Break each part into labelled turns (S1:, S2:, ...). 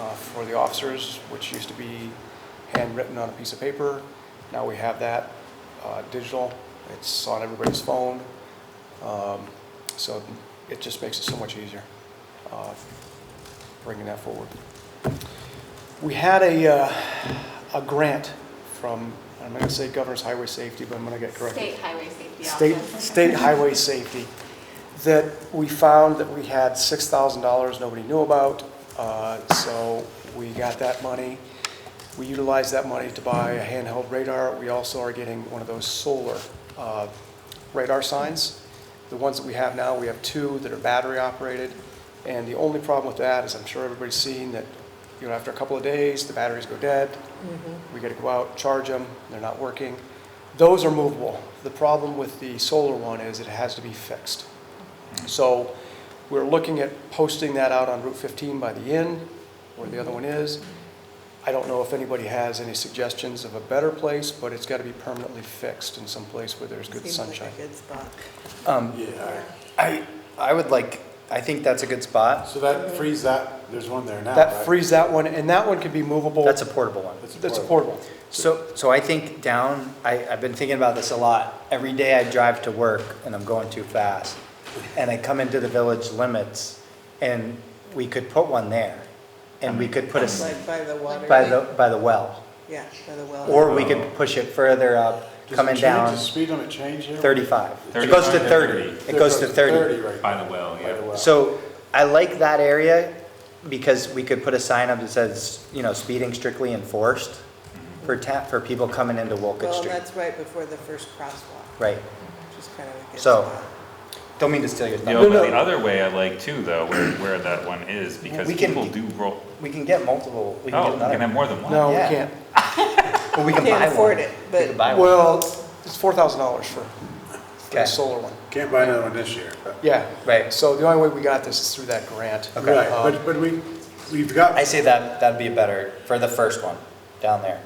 S1: uh, for the officers, which used to be handwritten on a piece of paper. Now we have that uh, digital. It's on everybody's phone. Um, So it just makes it so much easier, uh, bringing that forward. We had a, uh, a grant from, I'm going to say Governor's Highway Safety, but I'm going to get corrected.
S2: State Highway Safety
S1: State,
S2: Office.
S1: State Highway Safety, that we found that we had $6,000 nobody knew about, uh, so we got that money. We utilized that money to buy a handheld radar. We also are getting one of those solar uh, radar signs. The ones that we have now, we have two that are battery-operated, and the only problem with that is, I'm sure everybody's seen, that, you know, after a couple of days, the batteries go dead,
S3: Mm-hmm.
S1: we gotta go out, charge them, they're not working. Those are movable. The problem with the solar one is it has to be fixed. So we're looking at posting that out on Route 15 by the inn, where the other one is. I don't know if anybody has any suggestions of a better place, but it's gotta be permanently fixed in some place where there's good
S3: Seems like a
S1: sunshine.
S3: good spot.
S4: Um,
S5: Yeah,
S4: I, I would like, I think that's a good spot.
S5: so that frees that, there's one there now,
S1: That
S5: right?
S1: frees that one, and that one can be movable.
S4: That's a portable one.
S1: That's a portable.
S4: So, so I think down, I, I've been thinking about this a lot. Every day I drive to work and I'm going too fast. And I come into the village limits and we could put one there. And we could put a, s-
S3: Like by the water.
S4: by the, by the well.
S3: Yeah, by the well.
S4: Or we could push it further up,
S5: Does it
S4: coming
S5: change-
S4: down
S5: Does speed limit change here?
S4: thirty-five. It goes to
S6: 35 to
S4: thirty.
S6: 30.
S4: It goes to thirty.
S5: right.
S6: By the well,
S5: By the
S6: yeah.
S5: well.
S4: So I like that area because we could put a sign up that says, you know, speeding strictly enforced for ta, for people coming into Wolcott
S3: Mm-hmm. Well, and
S4: Street.
S3: that's right before the first crosswalk,
S4: Right.
S3: which is kind of a good
S4: So-
S3: spot.
S4: Don't mean to steal your
S6: You
S4: thunder.
S6: know, but the other way I like too, though, where, where that one is, because
S4: We can-
S6: people do roll,
S4: We can get multiple, we can
S6: oh,
S4: get
S6: you can have
S4: another.
S6: more than one.
S1: No, we
S4: Yeah.
S1: can't.
S4: But we can buy
S3: Can't
S4: one.
S3: afford it,
S4: We
S3: but-
S4: can buy one.
S1: Well, it's $4,000 for for
S4: Okay.
S1: the solar one.
S5: Can't buy another one this year, but.
S1: Yeah.
S4: Right.
S1: So the only way we got this is through that grant.
S4: Okay.
S5: Right,
S3: Uh,
S1: Um,
S5: but, but we, we've got.
S4: I say that, that'd be better for the first one down there.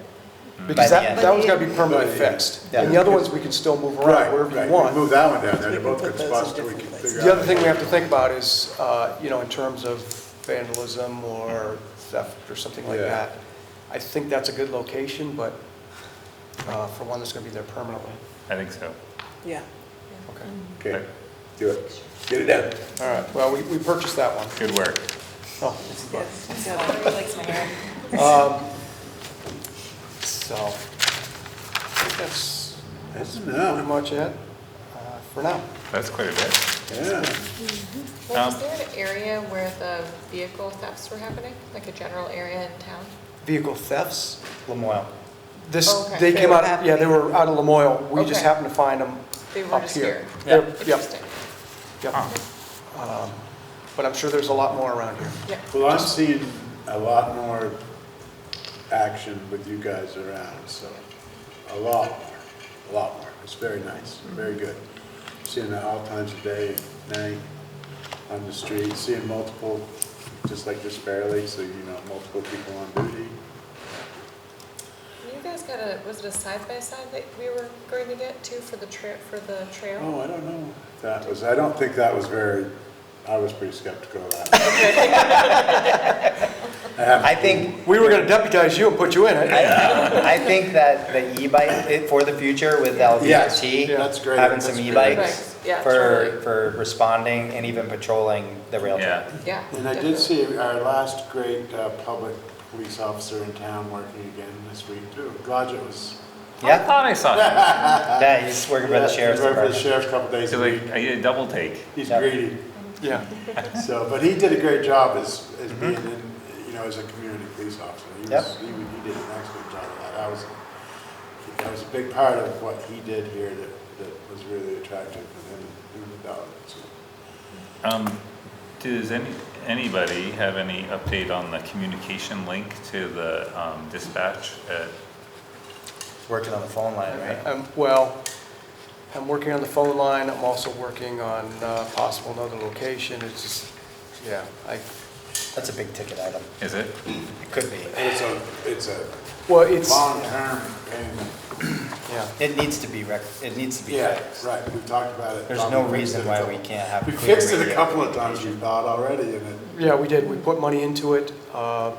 S1: Because
S4: By the
S1: that,
S4: end.
S1: that one's gotta be permanently
S5: By the end.
S1: fixed.
S4: Yeah.
S1: And the other ones, we can still move
S5: Right,
S1: around wherever
S5: right,
S1: you
S5: we
S1: want.
S5: Move that one down
S3: We
S5: there, they're
S3: can
S5: both
S3: put
S5: good
S3: those in
S5: spots, so we can
S3: different
S5: figure
S3: places.
S5: out.
S1: The other thing we have to think about is, uh, you know, in terms of vandalism or theft or something like
S5: Yeah.
S1: that. I think that's a good location, but, uh, for one that's gonna be there permanently.
S6: I think so.
S3: Yeah.
S1: Okay.
S5: Okay, do it, get it done.
S1: All right, well, we, we purchased that one.
S6: Good work.
S1: Oh,
S3: Yes.
S1: um, So, I think that's
S5: That's
S1: pretty
S5: enough,
S1: much it, uh, for now.
S6: That's quite a bit.
S5: yeah.
S2: Well,
S6: Um,
S2: Was there an area where the vehicle thefts were happening, like a general area in town?
S1: Vehicle thefts?
S4: Lamoille.
S1: This,
S2: Oh, Okay.
S1: they
S3: They
S1: came
S3: were
S1: out, yeah, they
S3: happening.
S1: were out of Lamoille. We just
S2: Okay.
S1: happened to find them
S2: They were
S1: up
S2: just
S1: here.
S2: here.
S1: They're-
S2: Interesting.
S1: Yep,
S6: Huh.
S1: yep. Um, But I'm sure there's a lot more around here.
S2: Yeah.
S5: Well, I'm seeing a lot more action with you guys around, so, a lot more, a lot more. It's very nice, very good. Seeing it all times of day, night, on the street, seeing multiple, just like this barely, so you know, multiple people on duty.
S2: You guys got a, was it a side-by-side that we were going to get too for the trail, for the trail?
S5: Oh, I don't know. if That was, I don't think that was very, I was pretty skeptical of that. I haven't-
S4: I think
S1: We were gonna deputize you and put you in it.
S4: I, I think that the e-bike, it- for the future with LVRT.
S5: Yes, that's great.
S4: Having some
S5: That's great.
S4: e-bikes
S2: Right, yeah,
S4: for,
S2: totally.
S4: for responding and even patrolling the rail
S6: Yeah.
S4: trail.
S2: Yeah.
S5: Mm-hmm. And I
S2: definitely.
S5: did see our last great uh, public police officer in town working again this week too. Glad it was.
S6: I
S4: Yeah,
S6: thought I saw that.
S4: yeah, he's working for the sheriff's
S5: Working for the
S4: department.
S5: sheriff a couple days
S6: So
S5: a week.
S6: like, I did a double take.
S5: He's
S4: Yeah.
S5: greedy.
S1: Yeah.
S5: So, but he did a great job as, as being, in, you know, as a community police officer. He
S4: Mm-hmm. Yep.
S5: was, he was- he did an excellent job of that. I was, that was a big part of what he did here that, that was really attractive to him and the dog. So,
S6: Um, does any, anybody have any update on the communication link to the, um, dispatch at
S4: Working on the phone line, right?
S1: Um, Well, I'm working on the phone line, I'm also working on uh, possible another location, it's just, yeah, I,
S4: That's a big ticket item.
S6: Is it?
S4: It could be.
S5: and It's a, it's a
S1: well, it's,
S5: long-term payment.
S1: yeah.
S4: It needs to be rec, it needs to be
S5: Yeah,
S4: fixed.
S5: right, we talked about it.
S4: There's no
S5: We fixed
S4: reason
S5: it a
S4: why
S5: couple-
S4: we can't have
S5: We
S4: clear
S5: fixed it a
S4: radio.
S5: couple of times, we thought already, and it,
S1: Yeah, we did, we put money into it, uh,